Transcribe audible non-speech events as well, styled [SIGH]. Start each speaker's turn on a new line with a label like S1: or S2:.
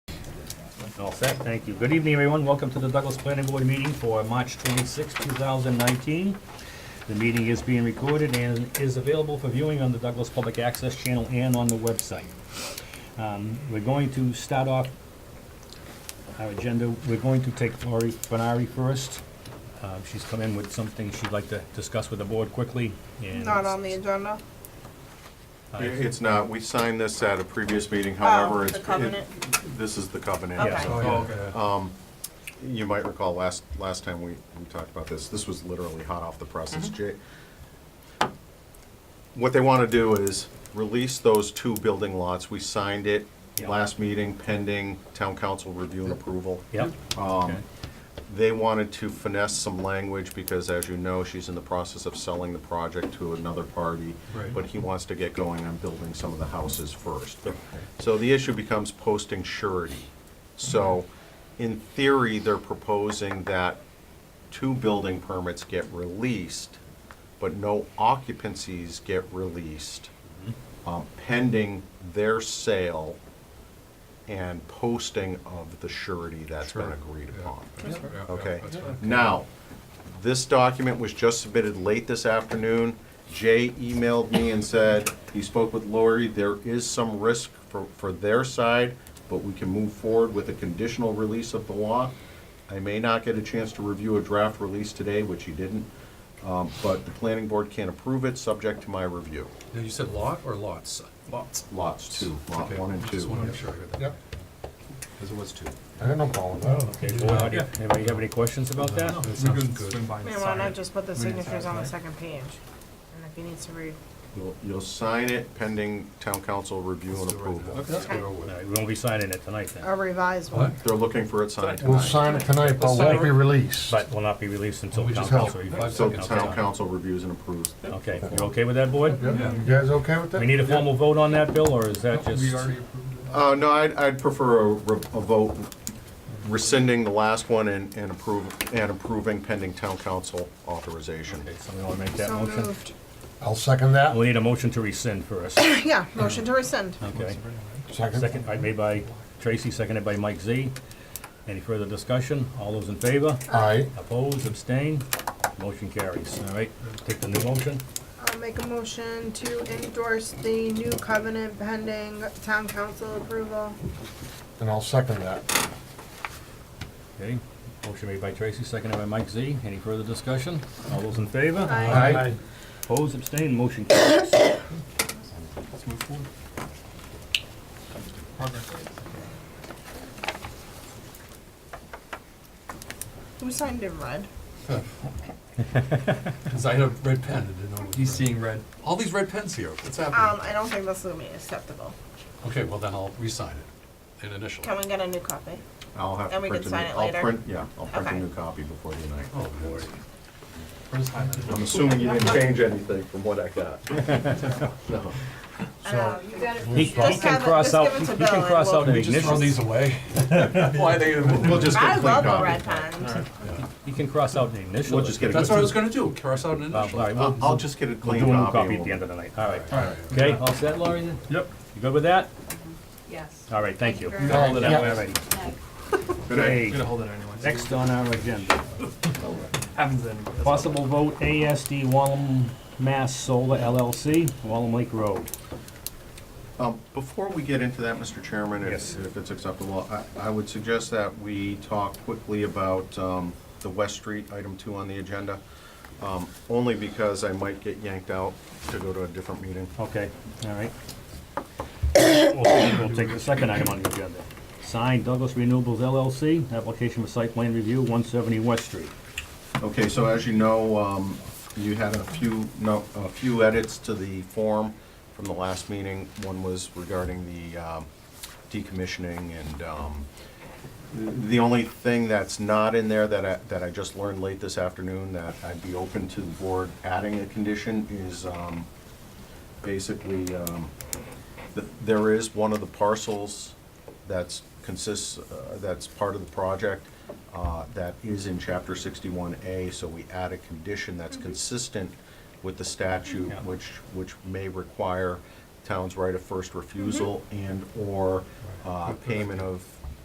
S1: All set, thank you. Good evening, everyone. Welcome to the Douglas Planning Board meeting for March 26, 2019. The meeting is being recorded and is available for viewing on the Douglas Public Access Channel and on the website. Um, We're going to start off our agenda. We're going to take Lori Bernari first. Uh, She's come in with something she'd like to discuss with the board quickly. and
S2: Not on the agenda?
S1: Uh,
S3: It's not, we signed this at a previous meeting,
S2: Oh,
S3: however, it's.
S2: The covenant?
S3: it- This is the covenant.
S2: Okay.
S1: Yeah.
S3: Oh. You might recall last, last time we, we talked about this, this was literally hot off the presses. Jay-
S2: Mm-hmm.
S3: What they want to do is release those two building lots. We signed it
S1: Yeah.
S3: last meeting pending town council review and approval.
S1: Yep. Okay.
S3: They wanted to finesse some language because, as you know, she's in the process of selling the project to another party.
S4: Right.
S3: But he wants to get going on building some of the houses first. So the issue becomes posting surety. So, in theory, they're proposing that two building permits get released, but no occupancies get released
S4: Mm-hmm.
S3: um, pending their sale and posting of the surety that's been
S4: Sure.
S3: agreed upon. Okay.
S4: Okay.
S3: Now, this document was just submitted late this afternoon. Jay emailed me and said, he spoke with Lori, there is some risk for, for their side, but we can move forward with a conditional release of the law. I may not get a chance to review a draft release today, which he didn't, um, but the planning board can approve it, subject to my review.
S4: Now, you said lot or lots? Lots.
S3: Lots two, lot
S4: Okay,
S3: one and
S4: Just want to
S3: two.
S4: make sure I heard that.
S5: Yep,
S3: Because it was two.
S5: I got no problem with that.
S1: Oh, Okay, board, how do you- anybody have any questions about that?
S4: No,
S1: All
S4: That sounds good.
S2: May want to just put the signatures on the second page. And if he needs to read,
S3: You'll, you'll sign it pending town council review and
S4: Let's do it right now.
S3: approval.
S4: Let's get it over with.
S1: right, we won't be signing it tonight then.
S2: a revised
S4: What?
S2: one.
S3: They're looking for it signed
S5: We'll
S3: tonight.
S5: sign it tonight, but won't be released.
S1: But will not be released until
S4: We
S1: town
S4: just
S1: council.
S4: have
S1: reviews.
S4: five
S3: So the
S4: seconds.
S3: town council reviews and approves.
S1: Okay, you okay with that, board?
S5: Yep,
S4: Yeah.
S5: You guys okay with that?
S1: We need a formal vote on that, Bill, or is that just?
S4: We already approved
S3: Uh, no, I'd, I'd prefer a, re- a vote rescinding the last one and, and approve, and approving pending town council authorization.
S1: Okay, Somebody wanna make that
S2: So
S1: motion?
S2: moved. [COUGHS]
S5: I'll second that.
S1: We'll need a motion to rescind first,
S2: Yeah, motion to rescind.
S1: okay?
S5: Second.
S1: Second, all right, made by Tracy, seconded by Mike Z. Any further discussion? All those in favor?
S5: Aye.
S1: Opposed, abstained? Motion carries, all right? Take the new motion.
S2: I'll make a motion to endorse the new covenant pending town council approval.
S5: And I'll second that.
S1: Okay, motion made by Tracy, seconded by Mike Z. Any further discussion? All those in favor?
S2: Aye.
S5: Aye.
S1: Opposed, abstained, motion carries.
S4: Let's move forward. Progress.
S2: Who signed in red?
S4: [LAUGHS] Because I had a red pen and didn't know. He's seeing red. All these red pens here. What's
S2: Um,
S4: happening?
S2: I don't think this will be acceptable.
S4: Okay, well, then I'll re-sign it and initial.
S2: Can
S4: it.
S2: we get a new copy?
S3: I'll have to
S2: And we
S3: print
S2: can
S3: a new-
S2: sign it
S3: I'll
S2: later?
S3: print- Yeah, I'll print a
S2: Okay.
S3: new copy before tonight.
S4: Oh, Lord. Where's Hyman?
S3: I'm assuming you didn't change anything from what I got.
S1: [LAUGHS]
S3: No.
S2: Uh, you got it.
S1: He he
S2: Just have it-
S1: can
S2: just
S1: cross out,
S2: give it
S1: he
S2: to
S1: can
S2: Bill and
S1: cross
S2: we'll-
S1: out
S4: Can we just throw these
S1: initials.
S4: away?
S3: [LAUGHS]
S4: Why are they?
S3: We'll just
S2: I
S3: get a clean
S2: love a red
S3: copy.
S2: pen.
S1: He can cross out the initials.
S3: We'll just get a
S4: That's what I was gonna do, cross out an
S1: Uh, All
S4: initial.
S1: right,
S3: I'll,
S1: we'll,
S3: I'll just get a
S1: we'll
S3: clean
S1: do a new
S3: copy.
S1: copy at
S3: and
S1: the end of the night, all right.
S4: All right.
S1: Okay, all set, Laurie, then? Yep. You good with that?
S6: Yes.
S1: All right, thank you.
S2: Thank you
S1: Got all of that
S5: much.
S1: way already.
S3: Good night.
S1: Okay,
S7: hold it anyway.
S1: Next on our agenda,
S7: Happens anyway.
S1: possible vote ASD Wallam Mass Solar LLC, Wallam Lake Road.
S3: Um, Before we get into that, Mr. Chairman,
S1: Yes.
S3: if if it's acceptable, I- I would suggest that we talk quickly about um, the West Street, item two on the agenda, um, only because I might get yanked out to go to a different meeting.
S1: Okay, all right. We'll we'll take the second item on the agenda. Signed Douglas Renewables LLC, application for site plan review, 170 West Street.
S3: Okay, so as you know, um, you had a few, no, a few edits to the form from the last meeting. One was regarding the um, decommissioning and um, the only thing that's not in there that I, that I just learned late this afternoon that I'd be open to the board adding a condition is um, basically, um, th- there is one of the parcels that's consists, uh, that's part of the project uh, that is in chapter sixty-one A, so we add a condition that's consistent with the statute,
S1: Yeah.
S3: which, which may require towns right of first refusal and/or uh, payment of